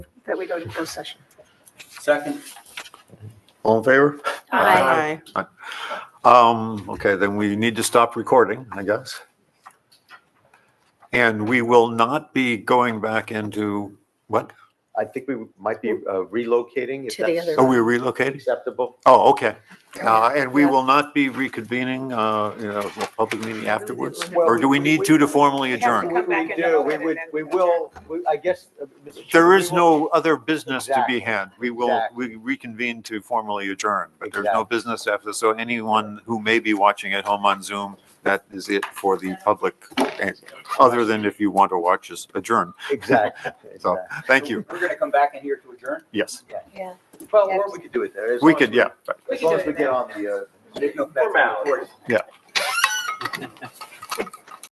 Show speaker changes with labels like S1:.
S1: that we go to closed session.
S2: Second.
S3: All in favor?
S1: Aye.
S3: Um, okay, then we need to stop recording, I guess. And we will not be going back into, what?
S4: I think we might be uh, relocating if
S1: Mm-hmm. To the
S4: that's
S3: Are we relocating?
S4: acceptable.
S3: Oh, okay. Uh, and we
S1: Yeah.
S3: will not be reconvening, uh, you know, a public meeting afterwards?
S4: Well,
S3: Or do we need to to formally
S1: We have to
S3: adjourn?
S1: come back
S4: We
S1: and
S4: do,
S1: vote
S4: we
S1: and
S4: would,
S1: then-
S4: we will, we- I guess. uh, Mr. Chairman,
S3: There is
S4: we will-
S3: no other business to be had. We will,
S4: Exactly.
S3: we reconvene to formally adjourn, but there's no
S4: Exactly.
S3: business after. So anyone who may be watching at home on Zoom, that is it for the public, eh, other than if you want to watch us adjourn.
S4: Exactly.
S3: So,
S4: exactly.
S3: thank you.
S2: We're gonna come back in here to adjourn?
S3: Yes,
S5: Yeah.
S4: Well, or we could do it there. as
S3: we
S4: long as
S3: could, yeah.
S4: As long as we get on the. uh,
S2: Formality.
S3: Yeah.